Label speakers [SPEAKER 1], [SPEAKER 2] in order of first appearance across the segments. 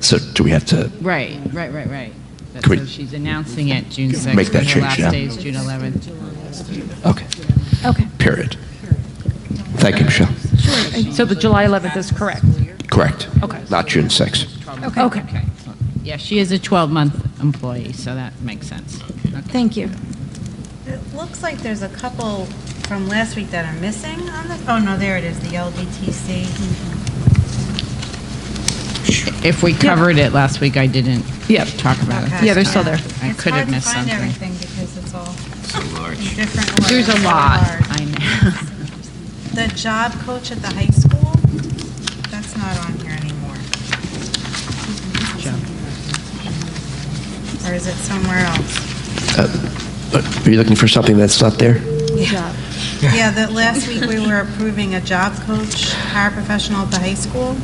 [SPEAKER 1] So do we have to,
[SPEAKER 2] Right, right, right, right. But
[SPEAKER 1] Can we-
[SPEAKER 2] So she's announcing it June 6th.
[SPEAKER 1] Make that
[SPEAKER 2] and her
[SPEAKER 1] change now?
[SPEAKER 2] last day is June 11th.
[SPEAKER 1] okay,
[SPEAKER 3] Okay.
[SPEAKER 1] period. Thank you, Michelle.
[SPEAKER 3] So the July 11th is correct?
[SPEAKER 1] Correct.
[SPEAKER 3] Okay.
[SPEAKER 1] Not June 6th.
[SPEAKER 3] Okay.
[SPEAKER 2] Yeah, she is a 12-month employee, so that makes sense. Okay.
[SPEAKER 3] Thank you.
[SPEAKER 4] It looks like there's a couple from last week that are missing on the, oh, no, there it is, the LBTC.
[SPEAKER 2] If we covered it last week, I didn't
[SPEAKER 3] Yep.
[SPEAKER 2] talk about it.
[SPEAKER 4] Okay.
[SPEAKER 3] Yeah, they're still there.
[SPEAKER 2] I
[SPEAKER 4] It's
[SPEAKER 2] could have
[SPEAKER 4] hard to
[SPEAKER 2] missed
[SPEAKER 4] find
[SPEAKER 2] something.
[SPEAKER 4] everything because it's all in different
[SPEAKER 2] There's a
[SPEAKER 4] orders, so
[SPEAKER 2] lot,
[SPEAKER 4] large.
[SPEAKER 2] I know.
[SPEAKER 4] The job coach at the high school, that's not on here anymore.
[SPEAKER 2] Job.
[SPEAKER 4] Or is it somewhere else?
[SPEAKER 1] Are you looking for something that's not there?
[SPEAKER 4] Yeah, that last week we were approving a job coach, paraprofessional at the high school.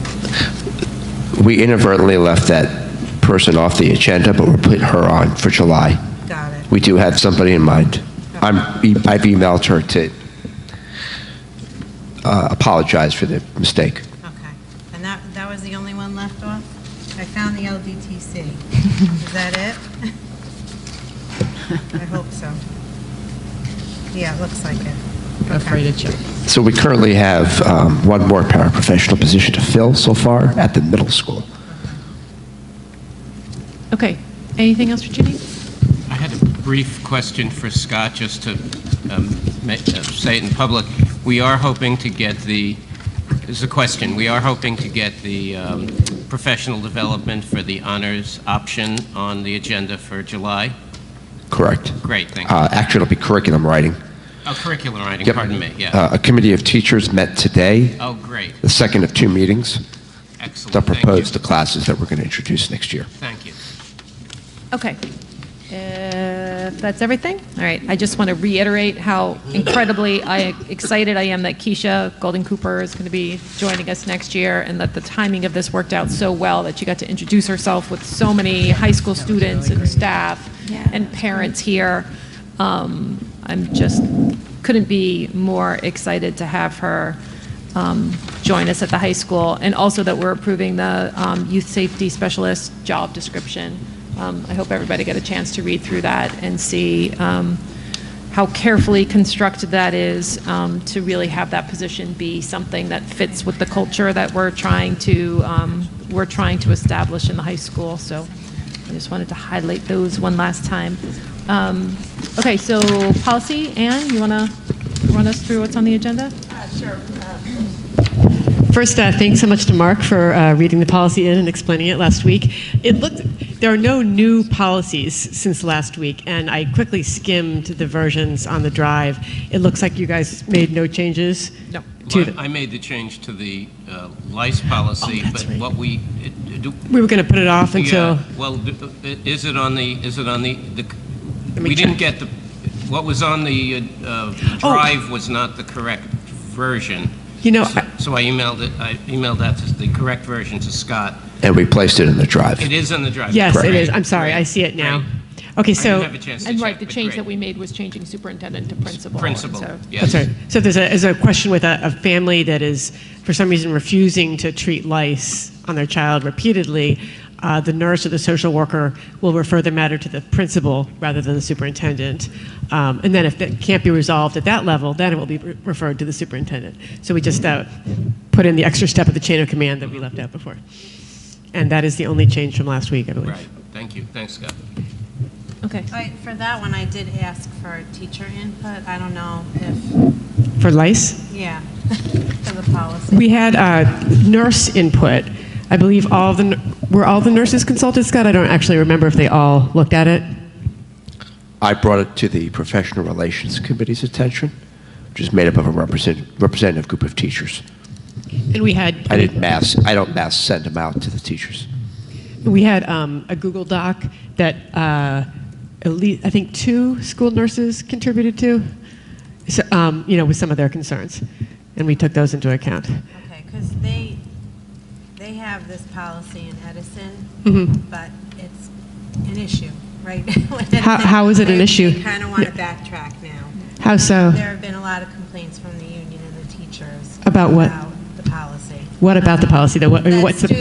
[SPEAKER 1] We inadvertently left that person off the agenda, but we're putting her on for July.
[SPEAKER 4] Got it.
[SPEAKER 1] We do have somebody in mind. I'm, e, I've emailed her to uh, apologize for the mistake.
[SPEAKER 4] Okay. And that, that was the only one left off? I found the LDTC. Is that it? I hope so. Yeah, it looks like it.
[SPEAKER 2] Afraid of check.
[SPEAKER 1] So we currently have um, one more paraprofessional position to fill so far at the middle school.
[SPEAKER 3] Okay. Anything else for Ginny?
[SPEAKER 5] I had a brief question for Scott, just to um, ma- uh, say it in public. We are hoping to get the, this is a question, we are hoping to get the um, professional development for the honors option on the agenda for July.
[SPEAKER 1] Correct.
[SPEAKER 5] Great, thank you.
[SPEAKER 1] Uh, Actually, it'll be curriculum writing.
[SPEAKER 5] Oh, curriculum writing,
[SPEAKER 1] Yep.
[SPEAKER 5] pardon me, yeah.
[SPEAKER 1] Uh, A committee of teachers met today,
[SPEAKER 5] Oh, great,
[SPEAKER 1] the second of two meetings, to
[SPEAKER 5] excellent, thank you.
[SPEAKER 1] propose the classes that we're going to introduce next year.
[SPEAKER 5] Thank you.
[SPEAKER 3] Okay. If that's everything, all right. I just want to reiterate how incredibly I excited I am that Keisha Golden Cooper is going to be joining us next year, and that the timing of this worked out so well that she got to introduce herself with so many high school students and staff and parents here. Um, I'm just couldn't be more excited to have her um, join us at the high school, and also that we're approving the um, youth safety specialist job description. Um, I hope everybody got a chance to read through that and see um, how carefully constructed that is um, to really have that position be something that fits with the culture that we're trying to, um, we're trying to establish in the high school. So I just wanted to highlight those one last time. Um, Okay, so policy, Anne, you want to run us through what's on the agenda?
[SPEAKER 6] First, uh, thanks so much to Mark for uh, reading the policy in and explaining it last week. It looked there are no new policies since last week, and I quickly skimmed the versions on the drive. It looks like you guys made no changes. No. To
[SPEAKER 5] Well, I I made the change to the uh, lice policy,
[SPEAKER 6] that's
[SPEAKER 5] but
[SPEAKER 6] right.
[SPEAKER 5] what we, it- do-
[SPEAKER 6] we were going to put it off until.
[SPEAKER 5] Yeah, uh, well, d- i- is it on the, is it on the, the-
[SPEAKER 6] Let me
[SPEAKER 5] we didn't
[SPEAKER 6] check.
[SPEAKER 5] get the, what was on the uh,
[SPEAKER 6] Oh.
[SPEAKER 5] drive was not the correct version.
[SPEAKER 6] You know,
[SPEAKER 5] So-
[SPEAKER 6] I-
[SPEAKER 5] So I emailed it, I emailed that, to the correct version to Scott.
[SPEAKER 1] And we placed it in the drive.
[SPEAKER 5] It is on the drive.
[SPEAKER 6] Yes, it
[SPEAKER 5] Great,
[SPEAKER 6] is. I'm sorry, I
[SPEAKER 5] great,
[SPEAKER 6] see it now.
[SPEAKER 5] great.
[SPEAKER 6] Okay,
[SPEAKER 5] I didn't
[SPEAKER 6] so
[SPEAKER 5] have a chance to
[SPEAKER 3] And right,
[SPEAKER 5] check,
[SPEAKER 3] the
[SPEAKER 5] but
[SPEAKER 3] change
[SPEAKER 5] great.
[SPEAKER 3] that we made was changing superintendent to principal. and
[SPEAKER 5] Principal,
[SPEAKER 3] so-
[SPEAKER 5] yes.
[SPEAKER 6] That's right. So if there's a, is a question with a, a family that is, for some reason, refusing to treat lice on their child repeatedly, uh, the nurse or the social worker will refer the matter to the principal rather than the superintendent. Um, and then if that can't be resolved at that level, then it will be re- referred to the superintendent. So we just uh, put in the extra step of the chain of command that we left out before. And that is the only change from last week, I believe.
[SPEAKER 5] Right, thank you, thanks, Scott.
[SPEAKER 3] Okay.
[SPEAKER 4] I- For that one, I did ask for teacher input. I don't know if,
[SPEAKER 6] For lice?
[SPEAKER 4] yeah, for the policy.
[SPEAKER 6] We had uh, nurse input. I believe all the, were all the nurses consulted, Scott? I don't actually remember if they all looked at it.
[SPEAKER 1] I brought it to the Professional Relations Committee's attention, which is made up of a represent- representative group of teachers.
[SPEAKER 6] And we had,
[SPEAKER 1] I didn't mass, I don't mass send them out to the teachers.
[SPEAKER 6] we had um, a Google Doc that uh, at least, I think, two school nurses contributed to, so, um, you know, with some of their concerns. And we took those into account.
[SPEAKER 4] Okay, because they, they have this policy in Edison, but it's an issue, right? With
[SPEAKER 6] Mm-hmm. How-
[SPEAKER 4] Edison,
[SPEAKER 6] how is it an
[SPEAKER 4] they- They
[SPEAKER 6] issue?
[SPEAKER 4] kind of want to backtrack now.
[SPEAKER 6] How so?
[SPEAKER 4] There have been a lot of complaints from the union and the teachers.
[SPEAKER 6] About what?
[SPEAKER 4] About the policy.
[SPEAKER 6] What about the policy, though? What- I mean,
[SPEAKER 4] That
[SPEAKER 6] What's the